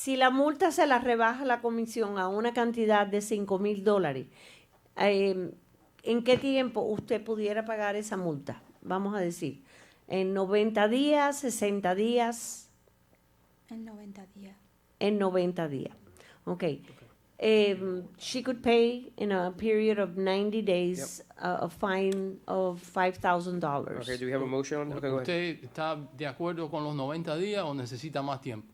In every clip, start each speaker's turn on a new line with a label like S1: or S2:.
S1: Si la multa se la rebaja la comisión a una cantidad de 5 mil dólares, eh, ¿en qué tiempo usted pudiera pagar esa multa? Vamos a decir, en 90 días, 60 días,
S2: En 90 días.
S1: en 90 días. Ok. Um, she could pay in a period of 90 days a, a fine of $5,000.
S3: Okay, do we have a motion? Okay, go ahead.
S4: ¿Usted está de acuerdo con los 90 días o necesita más tiempo?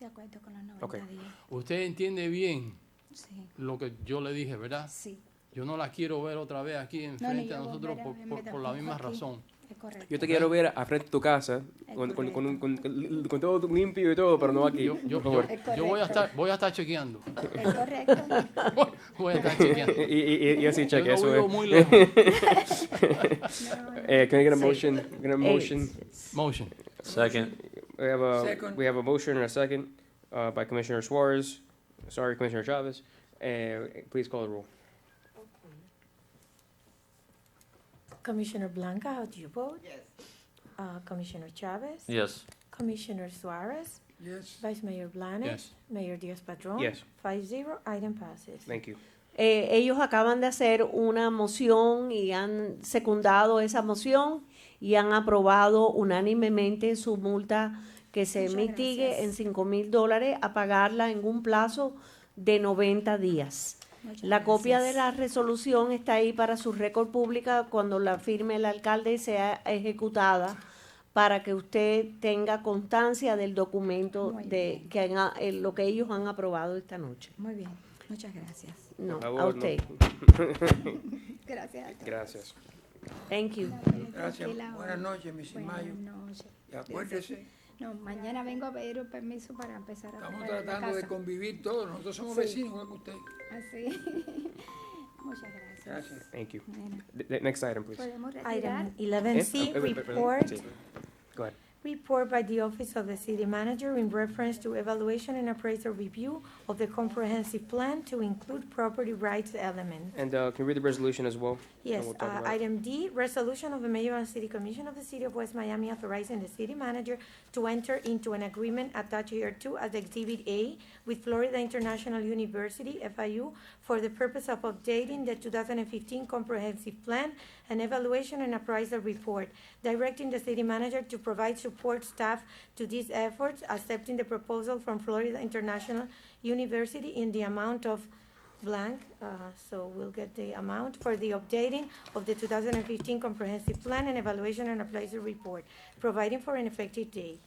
S2: De acuerdo con los 90
S3: Ok.
S2: días.
S4: Usted entiende bien
S2: Sí.
S4: lo que yo le dije, ¿verdad?
S2: Sí.
S4: Yo no la quiero ver otra vez aquí
S2: No, ni
S4: enfrente a
S2: yo
S4: nosotros
S2: volver a
S4: por,
S2: verme
S4: por- por la
S2: tampoco
S4: misma
S2: aquí.
S4: razón.
S2: Es correcto.
S3: Yo te quiero ver a frente de tu casa, con, con, con, con- con- con todo limpio y todo, pero no aquí.
S4: Yo,
S3: por
S4: yo-
S3: favor.
S4: yo-
S2: Es
S4: yo voy a
S2: correcto.
S4: estar, voy a estar chequeando.
S2: Es correcto.
S4: Voy a estar chequeando.
S3: y, y, y- y así,
S4: Yo
S3: cheque,
S4: no
S3: eso
S4: vivo
S3: es.
S4: muy lejos.
S3: Eh, can I get a
S1: Sí.
S3: motion? Can I get
S5: Eh.
S3: a motion?
S1: Eh,
S4: Motion.
S6: Second.
S3: We have a, we have a motion and a second uh, by Commissioner Suarez. Sorry, Commissioner Chavez. Uh, please call the roll.
S5: Commissioner Blanca, how do you vote? Yes. Uh, Commissioner Chavez?
S6: Yes.
S5: Commissioner Suarez? Yes. Vice Mayor Blanes?
S4: Yes.
S5: Mayor Diaz-Padrón?
S3: Yes.
S5: Five zero, item passes.
S3: Thank you.
S1: Eh, ellos acaban de hacer una moción y han secundado esa moción y han aprobado unánimemente su multa que se
S2: Muchas
S1: mitigue
S2: gracias.
S1: en 5 mil dólares a pagarla en un plazo de 90 días.
S2: Muchas
S1: La copia de
S2: gracias.
S1: la resolución está ahí para su récord pública cuando la firme el alcalde y sea ejecutada para que usted tenga constancia del documento
S2: Muy
S1: de
S2: bien.
S1: que han- eh, lo que ellos han aprobado esta noche.
S2: Muy bien. Muchas gracias.
S1: No,
S3: Por
S1: a
S3: favor, no.
S1: usted.
S2: Gracias a todos.
S3: Gracias.
S1: Thank you.
S2: Tranquila
S7: Gracias.
S2: ahora.
S7: Buenas noches, Miss
S2: Buenas
S7: Mayo.
S2: noches.
S7: Y acuérdese,
S2: No, mañana vengo a pedir un permiso para empezar a
S7: estamos
S2: trabajar en la
S7: tratando de
S2: casa.
S7: convivir todos. Nosotros somos
S2: Sí.
S7: vecinos, igual que usted.
S2: Así. Muchas gracias.
S7: Gracias.
S3: Thank you.
S2: Nena,
S3: Th- th- next item, please.
S2: Podemos retirar.
S5: Item eleven
S3: Eh?
S5: C,
S3: Oh, wait, wait, wait, wait.
S5: report,
S3: Sí. Go ahead.
S5: report by the Office of the City Manager in reference to evaluation and appraisal review of the comprehensive plan to include property rights element.
S3: And uh, can you read the resolution as well?
S5: Yes,
S3: we'll talk
S5: uh,
S3: about it.
S5: item D, resolution of the mayor and city commission of the city of West Miami authorizing the city manager to enter into an agreement attached here to as Exhibit A with Florida International University, FIU, for the purpose of updating the two thousand and fifteen comprehensive plan and evaluation and appraisal report, directing the city manager to provide support staff to these efforts, accepting the proposal from Florida International University in the amount of blank, uh, so we'll get the amount for the updating of the 2015 Comprehensive Plan and Evaluation and Appraisal Report, providing for an effective date.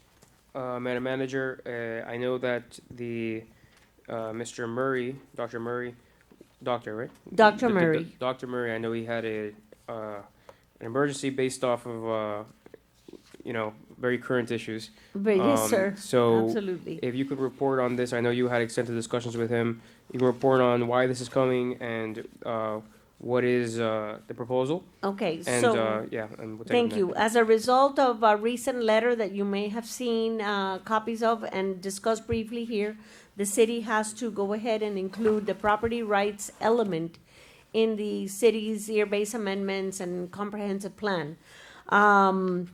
S3: Uh, Madam Manager, uh, I know that the, uh, Mr. Murray, Dr. Murray, doctor, right?
S1: Dr.
S3: The- the-
S1: Murray.
S3: Dr. Murray, I know he had a, uh, an emergency based off of, uh, you know, very current issues.
S1: But yes,
S3: Um,
S1: sir.
S3: So
S1: Absolutely.
S3: if you could report on this, I know you had extensive discussions with him. You can report on why this is coming and, uh, what is, uh, the proposal?
S1: Okay,
S3: And,
S1: so.
S3: uh, yeah, and we'll take it
S1: Thank
S3: from
S1: you. As a result of a recent letter that you may have seen uh, copies of and discussed briefly here, the city has to go ahead and include the property rights element in the city's year-based amendments and comprehensive plan. Um,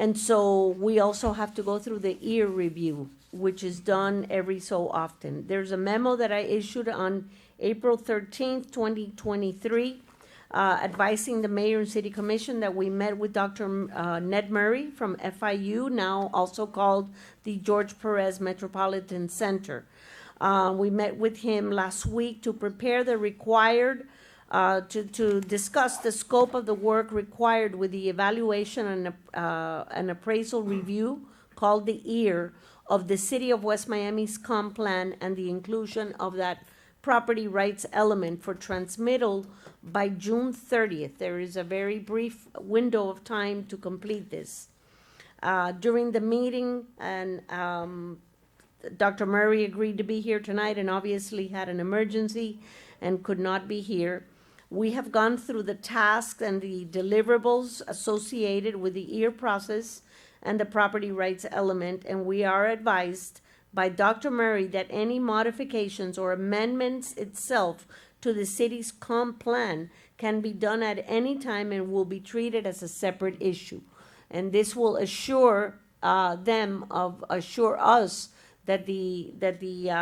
S1: And so we also have to go through the ear review, which is done every so often. There's a memo that I issued on April thirteenth, twenty twenty-three, uh, advising the mayor and city commission that we met with Dr. M- uh, Ned Murray from FIU, now also called the George Perez Metropolitan Center. Uh, we met with him last week to prepare the required uh, to, to discuss the scope of the work required with the evaluation and, ap- uh, an appraisal review called the EAR of the City of West Miami's comp plan and the inclusion of that property rights element for transmittal by June thirtieth. There is a very brief window of time to complete this. Uh, during the meeting and, um, Dr. Murray agreed to be here tonight and obviously had an emergency and could not be here. We have gone through the tasks and the deliverables associated with the ear process and the property rights element, and we are advised by Dr. Murray that any modifications or amendments itself to the city's comp plan can be done at any time and will be treated as a separate issue. And this will assure uh, them of, assure us that the, that the, uh,